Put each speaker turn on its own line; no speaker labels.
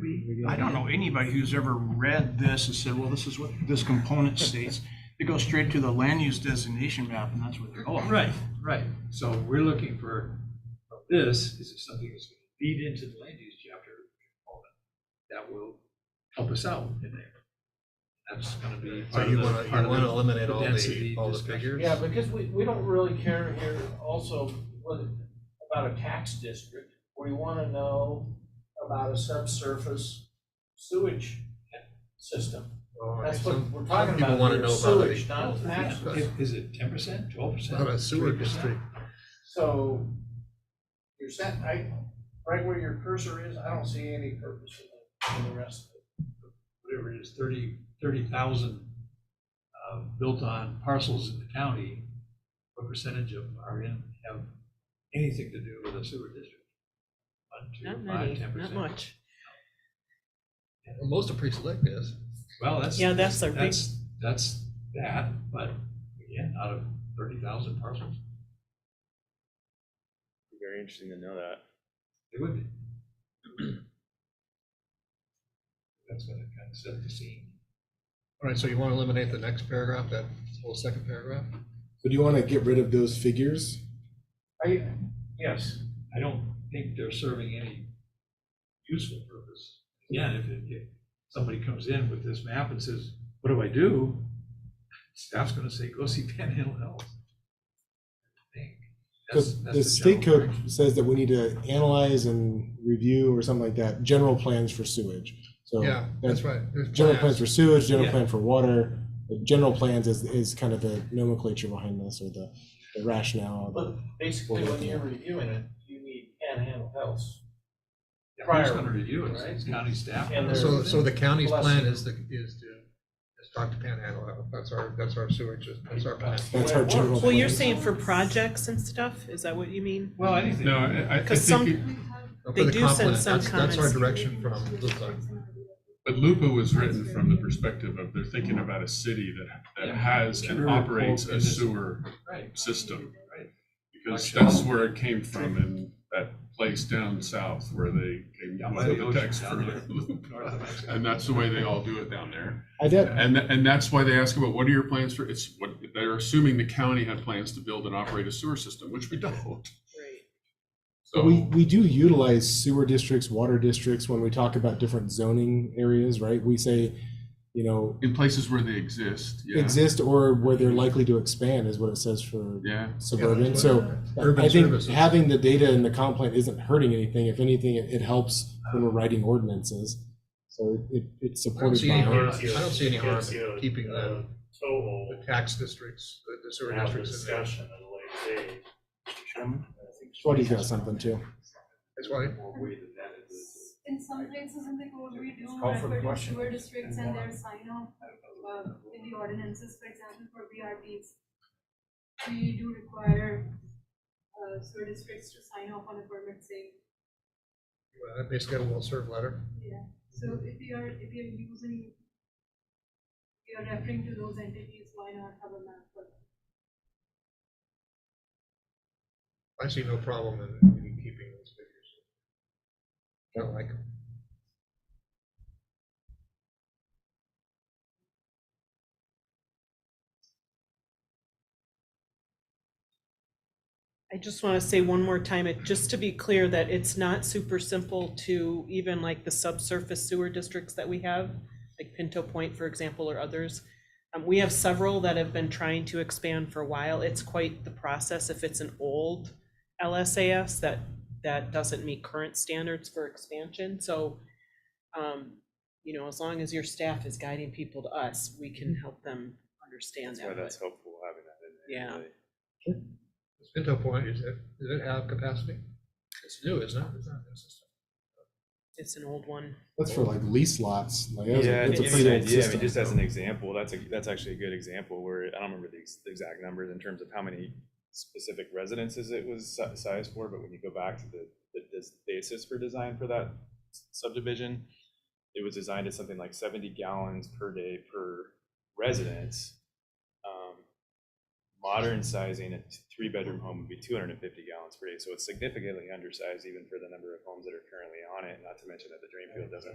video.
I don't know anybody who's ever read this and said, well, this is what this component states. It goes straight to the land use designation map and that's where they're going.
Right, right. So we're looking for, this is something that's going to feed into the land use chapter component that will help us out in there. That's going to be.
So
part of
you
the-
wanna, you
part of the-
wanna eliminate all the,
density
all the
discussion.
figures?
Yeah, because we, we don't really care here also whether- about a tax district. We want to know about a subsurface sewage system.
Well, I
That's
mean,
what
some-
we're talking
some people
about
wanna
here,
know about
sewage,
it.
not tax.
Yeah.
If- Is it ten percent, twelve percent?
Not a sewer district.
So you're set, I, right where your cursor is, I don't see any purpose in the, in the rest of it.
Whatever it is, thirty, thirty thousand uh, built on parcels in the county, what percentage of them are in, have anything to do with a sewer district? One,
Not
two, five,
many,
ten
not
percent.
much.
Well, Most of pre-select is.
Well, that's.
Yeah, that's their big-
That's, that's that, but again, out of thirty thousand parcels,
Be Very interesting to know that.
it would be. That's what it kind of set the scene.
All right, so you wanna eliminate the next paragraph, that whole second paragraph?
So do you want to get rid of those figures?
Are you, yes,
I don't think they're serving any useful purpose. Again, if, it- if somebody comes in with this map and says, what do I do? Staff's gonna say, go see Panhandle Health. I think. That's-
Because
that's
the state
general
code
direction.
says that we need to analyze and review or something like that, general plans for sewage. So
Yeah, that's right. There's
General
plans.
plans for sewage, general
Yeah.
plan for water, but general plans is, is kind of the nomenclature behind this or the the rationale. of it.
but basically
Well,
when
yeah.
you're reviewing it, you need panhandle health.
Yeah, Who's
prior,
gonna review it?
right?
It's county staff.
And there's-
So, so the county's plan
Bless you.
is the, is to, is talk to Panhandle Health. That's our, that's our sewage, that's our plan.
That's our general.
Well, you're
plan.
saying for projects and stuff, is that what you mean?
Well, anything.
No, I, I- I
Because
think,
some,
it-
For
They
the
do send
comp plan,
some
that's- That's our
comments.
direction from Lupa.
but Lupa was written from the perspective of they're thinking about a city that, that
Yeah.
has and
Sure.
operates a
And it's-
sewer
Right.
system.
Right.
Because that's where it came from in that place down south where they came
Down
up
by the
with the
ocean
text for
down there. North of
Lupa.
Mexico.
And that's the way they all do it down there.
I did,
And, tha- and that's why they ask about what are your plans for, it's what, they're assuming the county had plans to build and operate a sewer system, which we don't.
but we,
So,
we do utilize sewer districts, water districts when we talk about different zoning areas, right? We say, you know,
in places where they exist, yeah,
exist or where they're likely to expand is what it says for
yeah.
suburban. So I
Urban
think
services.
having the data in the comp plan isn't hurting anything. If anything, it, it helps when we're writing ordinances. So it, it's
I don't
supported
see
by.
any
our-
harm, I don't see any harm in
Concealed,
keeping
uh,
the,
Total,
the tax districts, the- the sewer
have a
districts in there.
discussion at a later date.
Chairman?
Shorty's got something too.
That's why,
More weight than that is-
In some places in the code, we do
call for the
refer to
question.
sewer districts and their sign off, uh, in the ordinances, for example, for VRBs. We do require, uh, sewer districts to sign off on a permit saying,
well, basically a well-served letter.
yeah. So if you are, if you're using, you're referring to those entities, why not have a map for them?
I see no problem in in keeping those figures. I don't like 'em.
I just want to say one more time, it, just to be clear that it's not super simple to even like the subsurface sewer districts that we have, like Pinto Point, for example, or others. Um, we have several that have been trying to expand for a while. It's quite the process if it's an old LSAS that, that doesn't meet current standards for expansion, so, um, you know, as long as your staff is guiding people to us, we can help them understand
Mm-hmm. That's
that.
why
but-
that's helpful having that in
Yeah.
there. really.
Does Pinto Point, is it, does it have capacity? It's new, isn't it? It's not new system.
It's an old one.
That's for like lease lots. Like that's,
Yeah,
a,
to
that's a
give
pretty
you an
old
idea, I
system.
mean, just as an example, that's a, that's actually a good example where, I don't remember the ex- the exact numbers in terms of how many specific residences it was si- sized for, but when you go back to the, the des- basis for design for that subdivision, it was designed as something like seventy gallons per day per residence. Um, Modern sizing, a t- three-bedroom home would be two hundred and fifty gallons per day, so it's significantly undersized even for the number of homes that are currently on it, not to mention that the drain field doesn't